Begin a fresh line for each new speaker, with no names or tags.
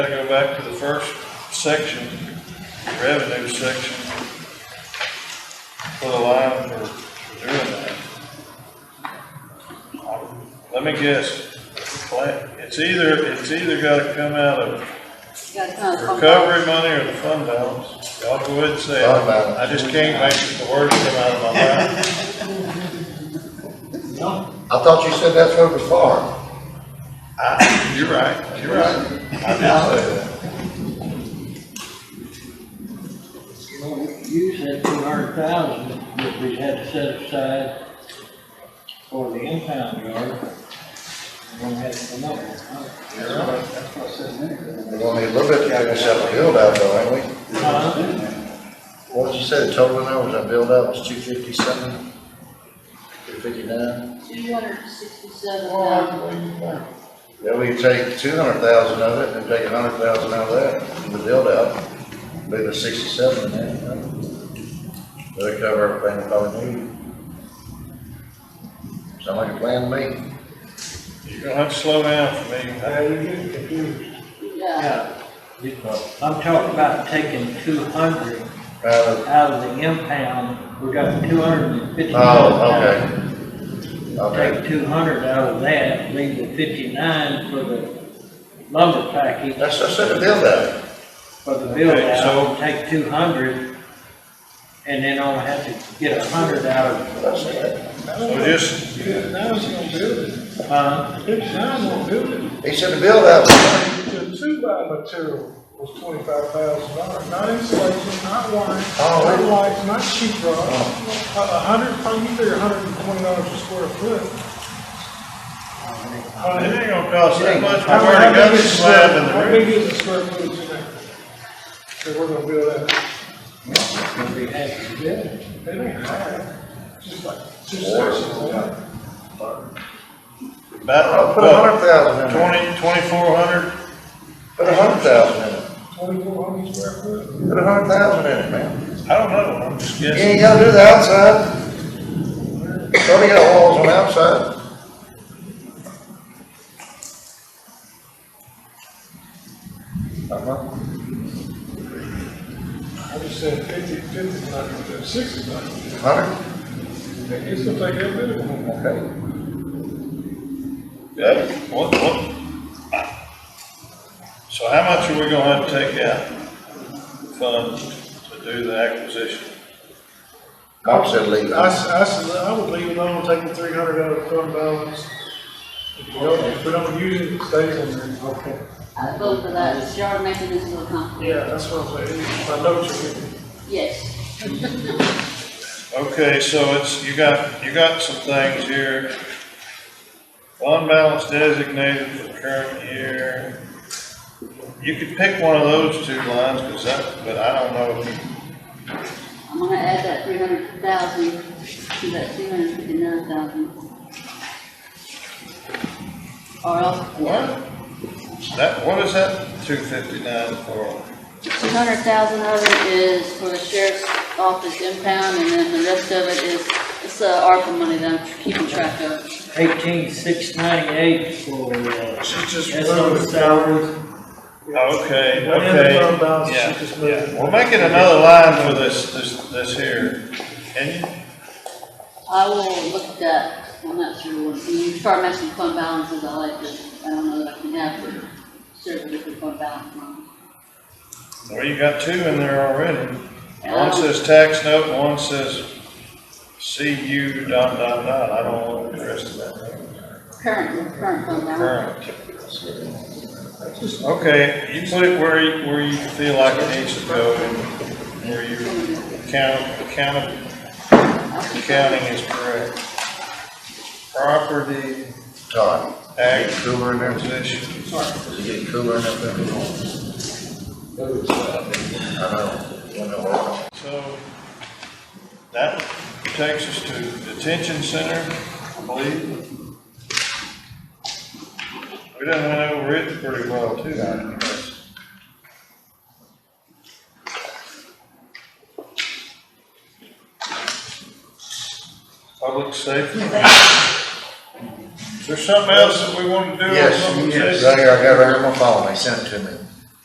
Gotta go back to the first section, revenue section. Put a line for for doing that. Let me guess, Pla- it's either, it's either gotta come out of
Gotta come from-
recovery money or the fund balance. Y'all go ahead and say it.
Fund balance.
I just can't make the words come out of my mouth.
I thought you said that's over farm.
I- You're right, you're right. I did say that.
Well, we Use that two hundred thousand that we had to set aside for the impound yard. We're gonna have to come up with, huh?
That's what I said a minute ago.
We're gonna need a little bit to finish up the build out though, ain't we? What did you say, the total in there was that build out was two fifty something? Two fifty-nine?
267,000.
Yeah, we take two hundred thousand of it and take a hundred thousand out of that, from the build out, leave the sixty-seven in there. you know? That'll cover everything we probably need. Sound like a plan to me?
You're gonna have to slow down for me.
you're getting confused.
Yeah,
Yeah, you- I'm talking about taking two hundred
Out of-
out of the impound, we got two hundred and fifty.
Oh, okay. Okay.
Take two hundred out of that, leave the fifty-nine for the lumber package.
That's, that's it, the build out.
for the build
Okay, so-
out, take two hundred, and then only have to get a hundred out of,
That's it.
So just,
Now it's gonna build it.
uh,
It's now gonna build it.
He said the build out was
The two-by material was twenty-five thousand dollars, not insulation, not wiring,
Oh,
not
really?
lights, not sheet rock. A a hundred, probably either a hundred and twenty dollars a square foot.
Well, it ain't gonna cost that much, we've
How-
already
how
got
big
the
is
slab in
How
the
big
roof.
is the square footage in there? That we're gonna build out?
if we have to do it.
It ain't high, just like two
Water.
sections.
I'll
About,
put a hundred
what,
thousand in there.
twenty, twenty-four hundred?
Put a hundred thousand in it.
Twenty-four hundred square foot.
Put a hundred thousand in it, man.
I don't know, I'm just
You
guessing.
ain't gotta do the outside. Probably got walls on the outside. Uh-huh.
I just said fifty, fifty's not gonna do it, sixty's not gonna do it.
Hundred,
It's gonna take a bit of one.
okay.
Yeah, What, what? So how much are we gonna have to take out fund to do the acquisition?
Bob said leave it.
I, s- I s- I would leave it on, take the three hundred out of the fund balance. If we don't, if we don't use it, it stays in there. Okay.
I vote for that, it's yard maintenance of the company,
Yeah, that's what I'm saying, I know what you're getting.
yes.
Okay, so it's, you got, you got some things here. Fund balance designated for current year. You could pick one of those two lines, cause that, but I don't know if you
I'm gonna add that 300,000 to that 259,000. Or else, yeah,
What? That, what is that two fifty-nine for?
200,000 of it is for the sheriff's office impound, and then the rest of it is, it's the ARPA money that I'm keeping track of.
Eighteen six ninety-eight for, uh,
She's just
that's on the
moving.
salaries.
Okay,
One end of
okay.
fund balance,
Yeah,
she just moved
yeah.
it.
We'll make it another line for this, this, this here. And
I will look at that, I'm not sure, what- when you start messing with fund balances, I like to, I don't know that I can have for certain different fund balance money.
well, you got two in there already. One
Um,
says tax note, and one says CU dot dot dot. I don't want the rest of that.
Current, current fund balance.
Current. Okay, you put it where you, where you feel like it needs to go and where you count, count,
I'll keep that.
counting is correct. Property.
Todd,
Ag
cooler in there?
position.
Is it getting cooler in there? I know. Wonder why.
So that takes us to detention center, I believe. We done went over it pretty well too. Public safety. Is there something else that we want to do? on
Yes,
public
yes,
safety?
right here, I got it right here on my phone, they sent it to me.